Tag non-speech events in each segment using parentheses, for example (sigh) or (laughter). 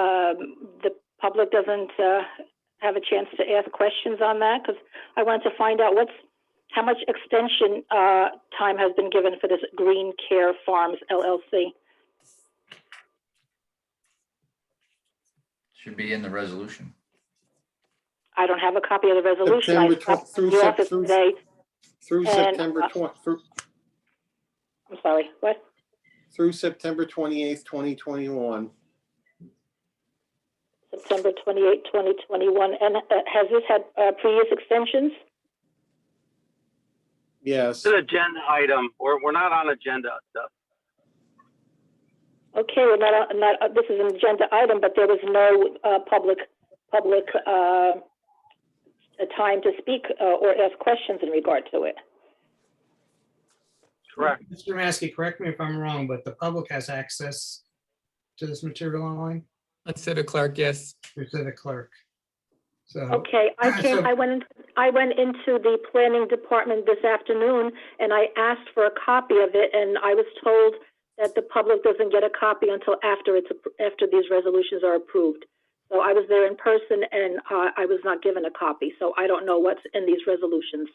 um, the public doesn't uh, have a chance to ask questions on that? Because I wanted to find out what's, how much extension uh, time has been given for this Green Care Farms LLC? Should be in the resolution. I don't have a copy of the resolution. I September twen- stopped through the Sep- office through- today. Through And, September uh, twen- through, I'm sorry, what? through September twenty-eighth, twenty twenty-one. September 28, 2021. And uh, has this had uh, previous extensions? Yes, It's an agenda item. We're, we're not on agenda stuff. Okay, well, not, not, uh, this is an agenda item, but there was no uh, public, public uh, uh, time to speak uh, or ask questions in regard to it. Correct. Mr. Maskey, correct me if I'm wrong, but the public has access to this material online, Let's say to Clark, yes. or to the clerk. So, Okay, I came, Um, So- I went, in- I went into the planning department this afternoon and I asked for a copy of it and I was told that the public doesn't get a copy until after it's, appro- after these resolutions are approved. So I was there in person and uh, I was not given a copy, so I don't know what's in these resolutions.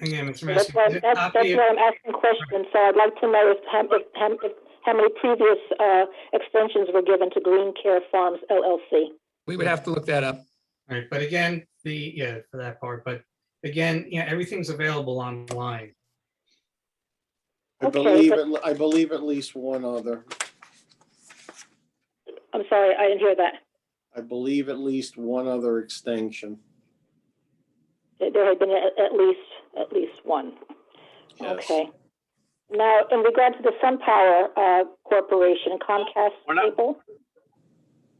again, Mr. That's why, Maskey. that's, that's copy- why I'm asking questions, so I'd like to know if, how- if, how- if, how many previous, uh, extensions were given to Green Care Farms LLC. We would have to look that up. Right, but again, the, yeah, for that part, but again, yeah, everything's available online. I okay, believe, but- at le- I believe at least one other. I'm sorry, I didn't hear that. I believe at least one other extension. There- There had been at, at least, at least one. Yes. Okay. Now, in regard to the SunPower, uh, Corporation Comcast We're not- cable,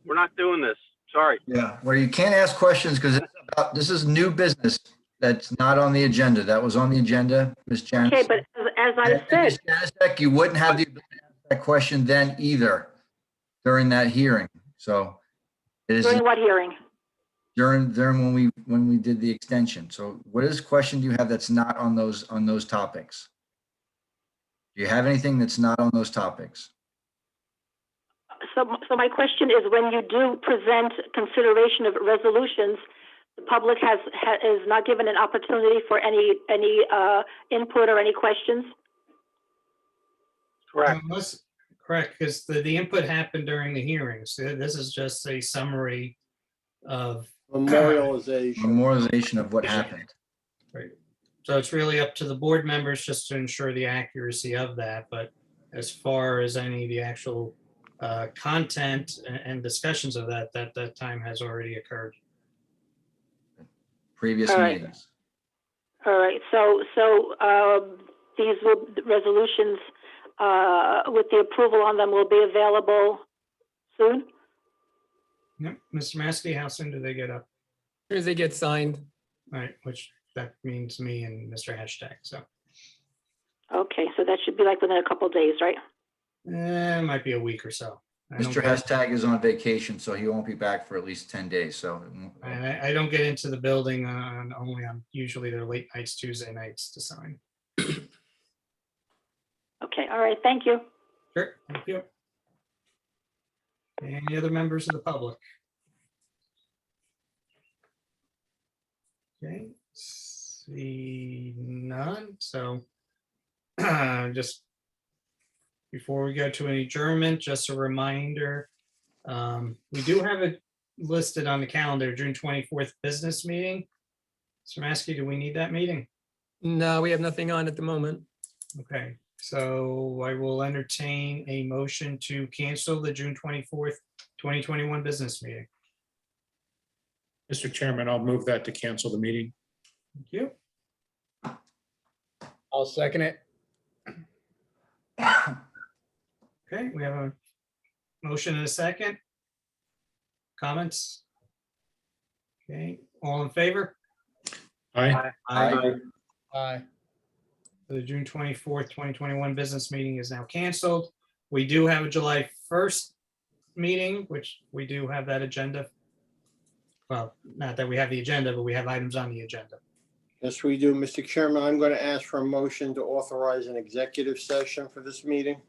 We're not doing this. Sorry. Yeah, where you can't ask questions because this is new business that's not on the agenda. That was on the agenda, Ms. Janicek. okay, but as- as I And- and said, Ms. Janicek, you wouldn't have the ability to ask that question then either during that hearing. So it is during what hearing? during, during when we, when we did the extension. So what is question do you have that's not on those, on those topics? Do you have anything that's not on those topics? So, so my question is, when you do present consideration of resolutions, the public has, ha- is not given an opportunity for any, any, uh, input or any questions? Correct. Unless, correct, because the, the input happened during the hearings. Uh, This is just a summary of, Memorialization. Memorialization of what happened. so it's really up to the board members just to ensure the accuracy of that, but as far as any of the actual uh, content a- and discussions of that, that, that time has already occurred. previous All right. meetings. All right, so, so, um, these will, resolutions, uh, with the approval on them will be available soon? Yeah, Mr. Maskey, how soon do they get up? As soon as they get signed, All Right, which that means me and Mr. Hashtag, so. Okay, so that should be like within a couple of days, right? Eh, It might be a week or so. I don't Mr. get- Hashtag is on vacation, so he won't be back for at least 10 days, so. it won't- And I, I don't get into the building on, only on, usually they're late nights, Tuesday nights to sign. Okay, all right, thank you. Sure, thank you. Any other members of the public? Okay, see none, so (clears throat) just before we go to an adjournment, just a reminder, um, we do have it listed on the calendar, June twenty-fourth business meeting. So Maskey, do we need that meeting? no, we have nothing on at the moment. Okay, so I will entertain a motion to cancel the June twenty-fourth, twenty twenty-one business meeting. Mr. Chairman, I'll move that to cancel the meeting. Thank you. I'll second it. Okay, we have a motion and a second. Comments? Okay, all in favor? Aye. Aye. Aye. The June twenty-fourth, twenty twenty-one business meeting is now canceled. We do have a July first meeting, which we do have that agenda. Well, not that we have the agenda, but we have items on the agenda. Yes, we do. Mr. Chairman, I'm going to ask for a motion to authorize an executive session for this meeting.